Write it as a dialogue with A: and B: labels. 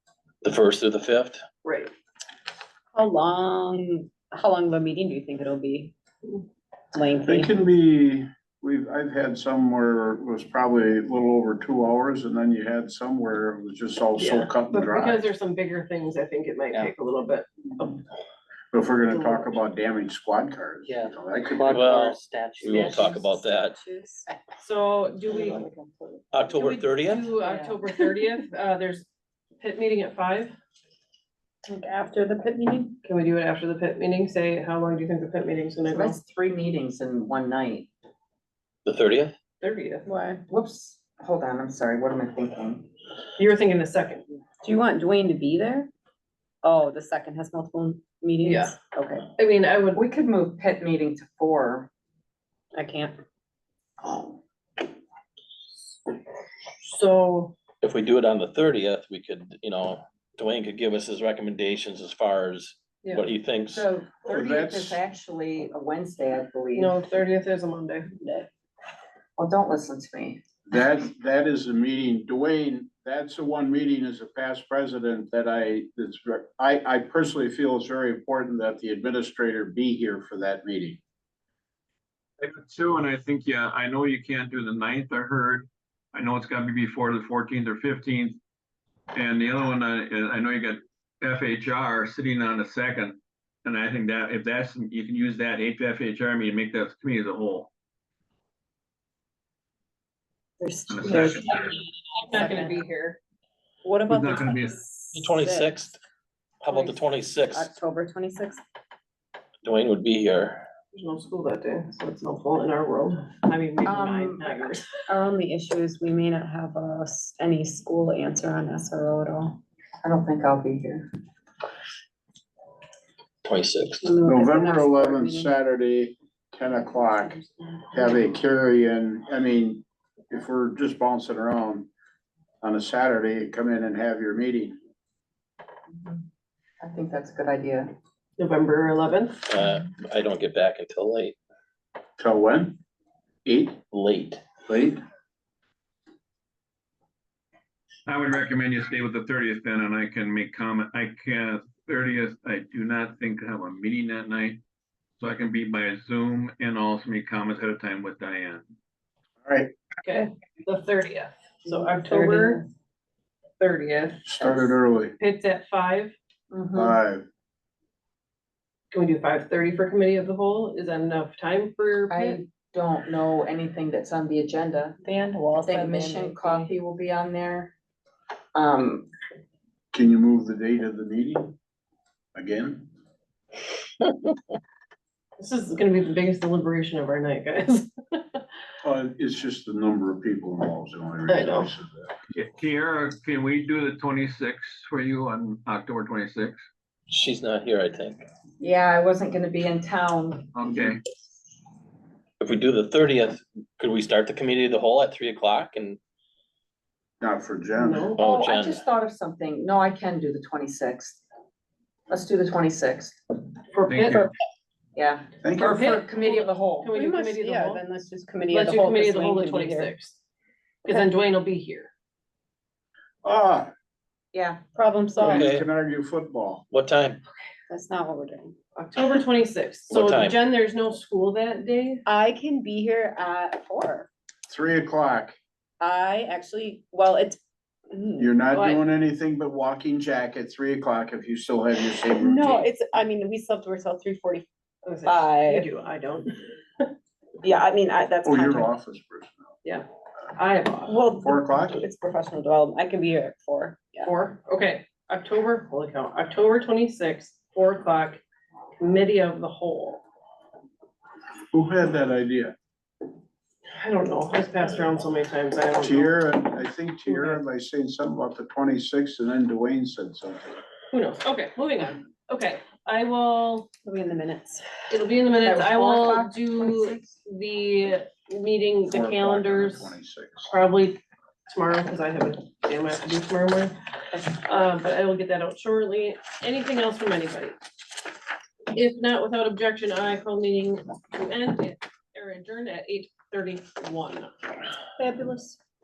A: The first or the fifth?
B: Right.
C: How long, how long of a meeting do you think it'll be?
D: They
C: Lengthy?
D: can be, we've, I've had some where it was probably a little over two hours, and then you had some where it was just all so
B: Yeah,
D: cut
B: But
D: and dry.
B: because there's some bigger things, I think it might
E: Yeah.
B: take a little bit.
D: But If we're gonna talk about damaged squad cars. you
E: Yeah.
D: know, that could be-
E: Quad
A: Well,
E: car
A: We won't
E: statue.
A: talk about that.
B: So do we? do
A: October
B: we
A: thirtieth?
B: Do October thirtieth, uh, there's pit meeting at five.
C: Think After the pit meeting?
B: Can we do it after the pit meeting? Say, how long do you think the pit meeting's gonna go?
E: That's three meetings in one night.
A: The thirtieth?
B: Thirtieth.
C: Why?
E: Whoops, hold on, I'm sorry, what am I thinking?
B: You were thinking the second.
C: Do you want Dwayne to be there? Oh, the second has multiple meetings?
B: Yeah.
C: Okay,
B: I mean, I would,
E: We could move pit meeting to four.
C: I can't.
B: so,
A: If we do it on the thirtieth, we could, you know, Dwayne could give us his recommendations as far as
B: Yeah.
A: what he thinks.
E: So
D: Well,
E: thirtieth is
D: that's-
E: actually a Wednesday, I believe.
B: no, thirtieth is a Monday.
E: Well, don't listen to me.
D: That, that is the meeting, Dwayne, that's the one meeting as a past president that I, that's, ver- I, I personally feel it's very important that the administrator be here for that meeting.
F: I do too, and I think, yeah, I know you can't do the ninth, I heard. I know it's gotta be before the fourteenth or fifteenth. And the other one, I, I know you got FHR sitting on the second. And I think that if that's, you can use that eight FHR, I mean, make that committee as a whole.
C: There's,
F: on the
C: there's,
F: second.
B: I'm not gonna be here.
C: what about the
F: not gonna be-
A: The
C: twenty-sixth?
A: twenty-sixth? How about the twenty-sixth?
C: October twenty-sixth?
A: Dwayne would be here.
B: There's no school that day, so it's helpful in our world. I mean, maybe mine,
E: Um,
B: not yours.
C: Our only issue is we may not have uh, s- any school answer on SRO at all.
E: I don't think I'll be here.
A: Twenty-sixth.
C: When we look at the
D: November
C: next board
D: eleventh,
C: meeting.
D: Saturday, ten o'clock, have a carry-in, I mean, if we're just bouncing around on a Saturday, come in and have your meeting.
E: I think that's a good idea.
B: November eleventh.
A: Uh, I don't get back until late,
D: Till when? Eight,
A: late.
D: late?
F: I would recommend you stay with the thirtieth then, and I can make comment, I can, thirtieth, I do not think I have a meeting that night. So I can be by Zoom and also make comments at a time with Diane.
D: All right,
B: Okay, the thirtieth. So October thirtieth.
D: started early, Uh,
B: It's at five.
C: Mm-hmm.
A: Uh,
E: Mhm.
D: five.
B: Can we do five thirty for committee of the whole? Is that enough time for your
E: I
B: pit?
E: don't know anything that's on the agenda.
C: Band
E: I
C: walls.
E: think Mission Coffee will be on there. Um,
D: Can you move the date of the meeting again?
B: This is gonna be the biggest deliberation of our night, guys.
D: Uh, it's just the number of people involved, the only
B: I
D: reason
B: know.
D: I said that.
F: Kiara, can we do the twenty-sixth for you on October twenty-sixth?
A: She's not here, I think.
E: yeah, I wasn't gonna be in town.
F: Okay,
A: If we do the thirtieth, could we start the committee of the whole at three o'clock and,
D: Not for Jen.
B: No,
A: oh,
E: I
A: Jen,
E: just thought of something. No, I can do the twenty-sixth. Let's do the twenty-sixth.
B: for
F: thank
B: pit,
F: you.
E: Yeah,
D: Thank
E: or
D: you.
E: for committee of the whole.
B: can we
C: We
B: do
C: must,
B: committee of the
C: yeah,
B: whole?
C: then let's just committee of
B: Let's
C: the
B: do
C: whole.
B: committee of
C: because
B: the whole
C: Wayne
B: the
C: can be here.
B: twenty-sixth. Cause then Dwayne will be here.
D: Ah,
E: Yeah,
C: Problem solved.
A: Okay.
D: you can argue football.
A: what time?
C: That's not what we're doing.
B: October twenty-sixth.
A: What
B: So
A: time?
B: Jen, there's no school that day.
C: I can be here at four.
D: Three o'clock.
C: I actually, well, it's. mm,
D: You're not
C: What?
D: doing anything but walking jack at three o'clock if you still have your same routine.
C: No, it's, I mean, we slept, we're till three forty.
B: I was like,
C: Five.
B: You do, I don't.
C: Yeah, I mean, I, that's.
D: Oh, you're
C: contract.
D: office personnel.
B: I have off.
C: Well.
D: Four o'clock?
C: It's professional development. I can be here at four. Yeah.
B: Four, okay, October, holy cow, October twenty-sixth, four o'clock, committee of the whole.
D: Who had that idea?
B: I don't know, it's passed around so many times, I don't know.
D: Tiara, I think Tiara, by saying something about the twenty-sixth, and then Dwayne said something.
B: Who knows, okay, moving on, okay, I will,
C: It'll be in the minutes.
B: it'll be in the minutes,
E: was
B: I
E: four
B: will
E: o'clock,
B: do
E: 26th?
B: the meeting,
D: Four
B: the
D: o'clock on
B: calendars.
D: 26th.
B: probably tomorrow, because I have a damn I have to do tomorrow morning. Uh, but I will get that out shortly. Anything else from anybody? If not, without objection, I call meeting to end at- or adjourn at eight thirty-one.
C: Fabulous.